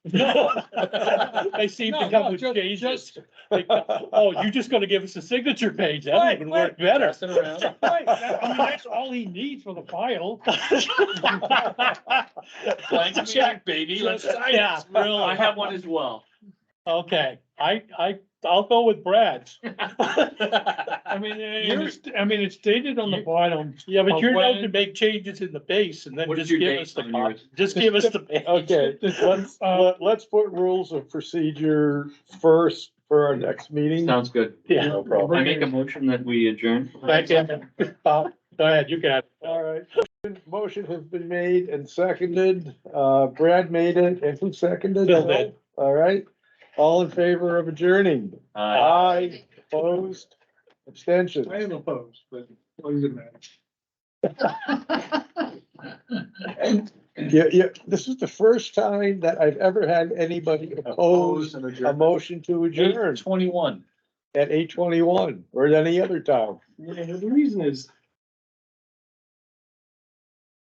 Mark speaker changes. Speaker 1: They seem to
Speaker 2: No,
Speaker 1: come
Speaker 2: no,
Speaker 1: with
Speaker 2: ju-
Speaker 1: changes.
Speaker 2: just-
Speaker 1: They come, Oh, you're just gonna give us a signature page? That
Speaker 2: Right,
Speaker 1: would work
Speaker 2: right.
Speaker 1: better.
Speaker 2: Pass it around.
Speaker 1: Right, that- I mean, That's all he needs for the file.
Speaker 3: Blank check, baby. Let's sign
Speaker 1: Yeah.
Speaker 3: it. Real, I have one as well.
Speaker 1: Okay, I, I, I'll go with Brad's.
Speaker 2: I mean,
Speaker 1: You're-
Speaker 2: it's, I mean, it's dated on the
Speaker 1: You-
Speaker 2: bottom.
Speaker 1: Yeah, but
Speaker 2: Of
Speaker 1: you're allowed
Speaker 2: when-
Speaker 1: to make changes in the base and then
Speaker 3: What is
Speaker 1: just
Speaker 3: your
Speaker 1: give
Speaker 3: date
Speaker 1: us the,
Speaker 3: on
Speaker 1: cop-
Speaker 3: yours?
Speaker 1: just give us the. page.
Speaker 4: Okay, let's,
Speaker 2: Uh,
Speaker 4: let- let's put rules of procedure first for our next meeting.
Speaker 3: Sounds good.
Speaker 1: Yeah,
Speaker 4: No problem.
Speaker 3: I make a motion that we adjourn.
Speaker 1: thank you. Bob, Go ahead, you can have.
Speaker 4: All right, motion has been made and seconded. Uh, Brad made it and who seconded?
Speaker 1: Bill did.
Speaker 4: All right, all in favor of adjourning?
Speaker 3: Uh,
Speaker 4: Aye, opposed, abstentions.
Speaker 2: I am opposed, but what does it matter?
Speaker 4: Yeah, yeah, this is the first time that I've ever had anybody oppose a motion to adjourn
Speaker 3: Twenty-one.
Speaker 4: at eight twenty-one or at any other time.
Speaker 2: Yeah, the reason is,